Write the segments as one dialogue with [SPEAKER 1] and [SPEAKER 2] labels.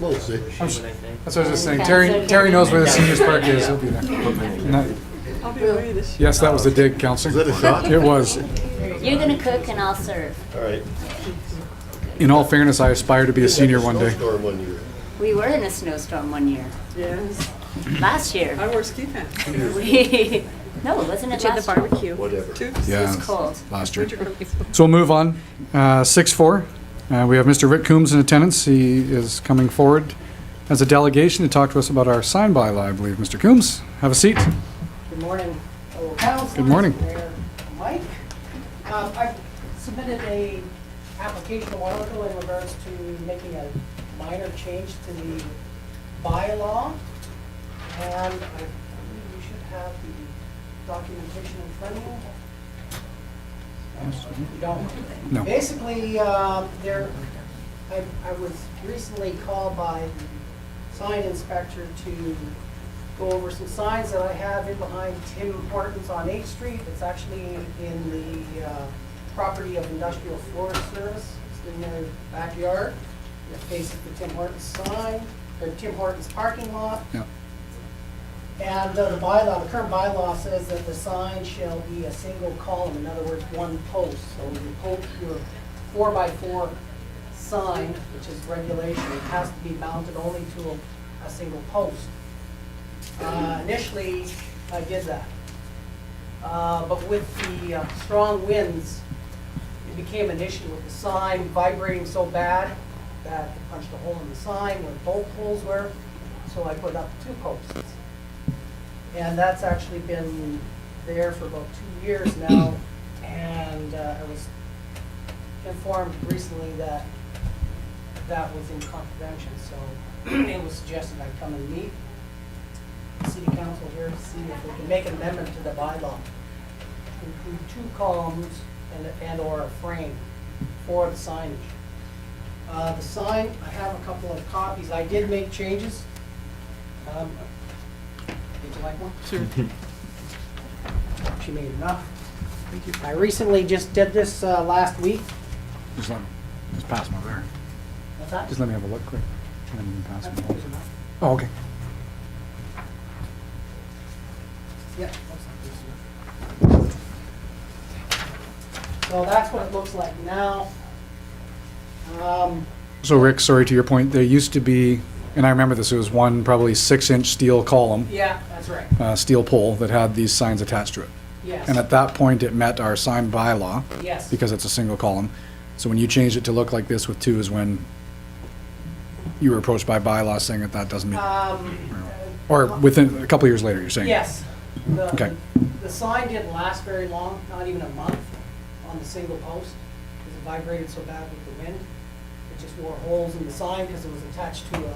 [SPEAKER 1] We'll see.
[SPEAKER 2] That's what I was just saying.
[SPEAKER 3] Okay, so
[SPEAKER 2] Terry,
[SPEAKER 3] can
[SPEAKER 2] Terry
[SPEAKER 3] we-
[SPEAKER 2] knows where the seniors park is. He'll be there. Not-
[SPEAKER 4] I'll be away this year.
[SPEAKER 2] Yes, that was the dig, Counselor.
[SPEAKER 1] Is that a shot?
[SPEAKER 2] It was.
[SPEAKER 3] You're gonna cook and I'll serve.
[SPEAKER 1] All right.
[SPEAKER 2] In all fairness, I aspire to be a senior one day.
[SPEAKER 1] Snowstorm one year.
[SPEAKER 3] We were in a snowstorm one year,
[SPEAKER 4] Yes.
[SPEAKER 3] last year.
[SPEAKER 4] I wore ski pants.
[SPEAKER 3] We- No, wasn't it last year?
[SPEAKER 4] barbecue.
[SPEAKER 1] Whatever.
[SPEAKER 4] Tubes.
[SPEAKER 2] Yeah.
[SPEAKER 3] It was cold.
[SPEAKER 2] Last year.
[SPEAKER 4] Winter coat.
[SPEAKER 2] So we'll move on. Uh, Six four, Uh, we have Mr. Rick Coombs in attendance. He is coming forward as a delegation to talk to us about our sign bylaw, I believe. Mr. Coombs, have a seat.
[SPEAKER 5] Good morning, fellow council.
[SPEAKER 2] Good morning.
[SPEAKER 5] Mayor Mike. Um, I submitted a application a while ago in regards to making a minor change to the bylaw. And I believe you should have the documentation in front of you. You don't?
[SPEAKER 2] No.
[SPEAKER 5] Basically, um, there, I, I was recently called by the sign inspector to go over some signs that I have in behind Tim Hortons on Eighth Street. It's actually in the, uh, property of Industrial Forest Service, it's in their backyard. It faces the Tim Hortons sign, or Tim Hortons parking lot.
[SPEAKER 2] Yeah.
[SPEAKER 5] And uh, the bylaw, the current bylaw says that the sign shall be a single column, in other words, one post. So your post, your four by four sign, which is regulation, it has to be mounted only to a, a single post. Uh, initially, I did that. Uh, but with the uh, strong winds, it became an issue with the sign vibrating so bad that it punched a hole in the sign where bolt holes were, so I put up two posts. And that's actually been there for about two years now, and uh, I was informed recently that that was in contravention, so it was suggested I come and meet the city council here to see if we can make an amendment to the bylaw. Include two columns and, and/or a frame for the signage. Uh, the sign, I have a couple of copies, I did make changes. Um, Would you like one?
[SPEAKER 4] Sure.
[SPEAKER 5] She made enough. I recently just did this, uh, last week.
[SPEAKER 2] Just let me, just pass them over there.
[SPEAKER 5] What's that?
[SPEAKER 2] Just let me have a look quick. and then you can pass
[SPEAKER 5] That's
[SPEAKER 2] them
[SPEAKER 5] close
[SPEAKER 2] over.
[SPEAKER 5] enough.
[SPEAKER 2] Oh, okay.
[SPEAKER 5] Yeah, that's not close enough. So that's what it looks like now. Um,
[SPEAKER 2] So Rick, sorry to your point, there used to be, and I remember this, it was one probably six-inch steel column,
[SPEAKER 5] yeah, that's right,
[SPEAKER 2] uh, steel pole that had these signs attached to it. And
[SPEAKER 5] yes,
[SPEAKER 2] at that point, it met our sign bylaw
[SPEAKER 5] yes.
[SPEAKER 2] because it's a single column. So when you changed it to look like this with two is when you were approached by bylaw saying that that doesn't meet,
[SPEAKER 5] Um,
[SPEAKER 2] or within, a couple years later, you're saying?
[SPEAKER 5] yes. The-
[SPEAKER 2] Okay.
[SPEAKER 5] The sign didn't last very long, not even a month, on the single post, because it vibrated so bad with the wind. It just wore holes in the sign because it was attached to a, uh,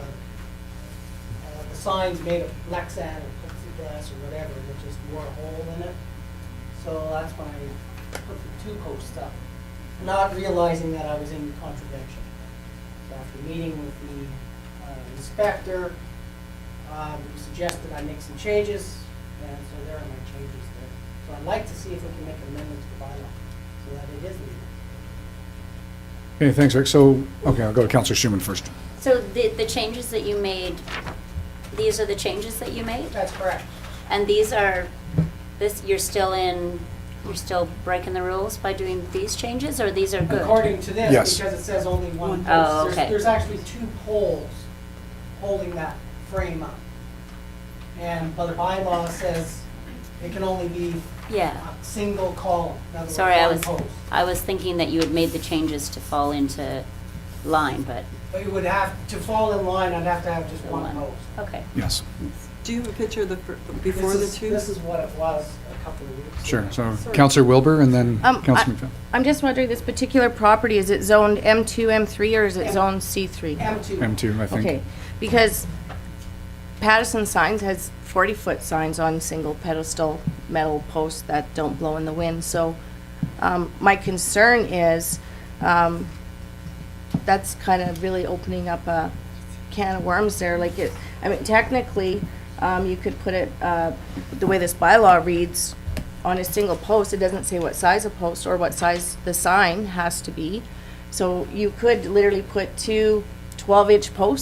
[SPEAKER 5] the sign's made of Lexan or plexiglass or whatever, and it just wore a hole in it. So that's when I put the two posts up, not realizing that I was in contravention. So after meeting with the uh, inspector, um, suggested I make some changes, and so there are my changes there. So I'd like to see if we can make an amendment to the bylaw, so that it is legal.
[SPEAKER 2] Okay, thanks, Rick. So, okay, I'll go to Counselor Schuman first.
[SPEAKER 3] So the, the changes that you made, these are the changes that you made?
[SPEAKER 5] That's correct.
[SPEAKER 3] And these are, this, you're still in, you're still breaking the rules by doing these changes, or these are good?
[SPEAKER 5] According to
[SPEAKER 2] Yes.
[SPEAKER 5] this, because it says only one
[SPEAKER 4] One.
[SPEAKER 5] post.
[SPEAKER 3] Oh,
[SPEAKER 5] there's-
[SPEAKER 3] okay.
[SPEAKER 5] There's actually two poles holding that frame up. And, but the bylaw says it can only be a
[SPEAKER 3] Yeah.
[SPEAKER 5] single column, in other words,
[SPEAKER 3] Sorry, I
[SPEAKER 5] one
[SPEAKER 3] was,
[SPEAKER 5] post.
[SPEAKER 3] I was thinking that you had made the changes to fall into line, but.
[SPEAKER 5] But you would have, to fall in line, I'd have to have just one post.
[SPEAKER 3] Okay.
[SPEAKER 2] Yes,
[SPEAKER 4] Do you have a picture of the, fir-
[SPEAKER 5] This
[SPEAKER 4] before the
[SPEAKER 5] is-
[SPEAKER 4] two?
[SPEAKER 5] This is what it was a couple of weeks ago.
[SPEAKER 2] sure. So Counselor Wilbur and then
[SPEAKER 6] Um,
[SPEAKER 2] Counselor
[SPEAKER 6] I-
[SPEAKER 2] McPhail.
[SPEAKER 6] I'm just wondering, this particular property, is it zoned M2, M3, or is it zoned C3?
[SPEAKER 5] M2.
[SPEAKER 2] M2, I think.
[SPEAKER 6] Okay, because Patterson Signs has 40-foot signs on single pedestal metal posts that don't blow in the wind, so um, my concern is, um, that's kind of really opening up a can of worms there, like it, I mean, technically, um, you could put it, uh, the way this bylaw reads, on a single post, it doesn't say what size a post or what size the sign has to be. So you could literally put two 12-inch posts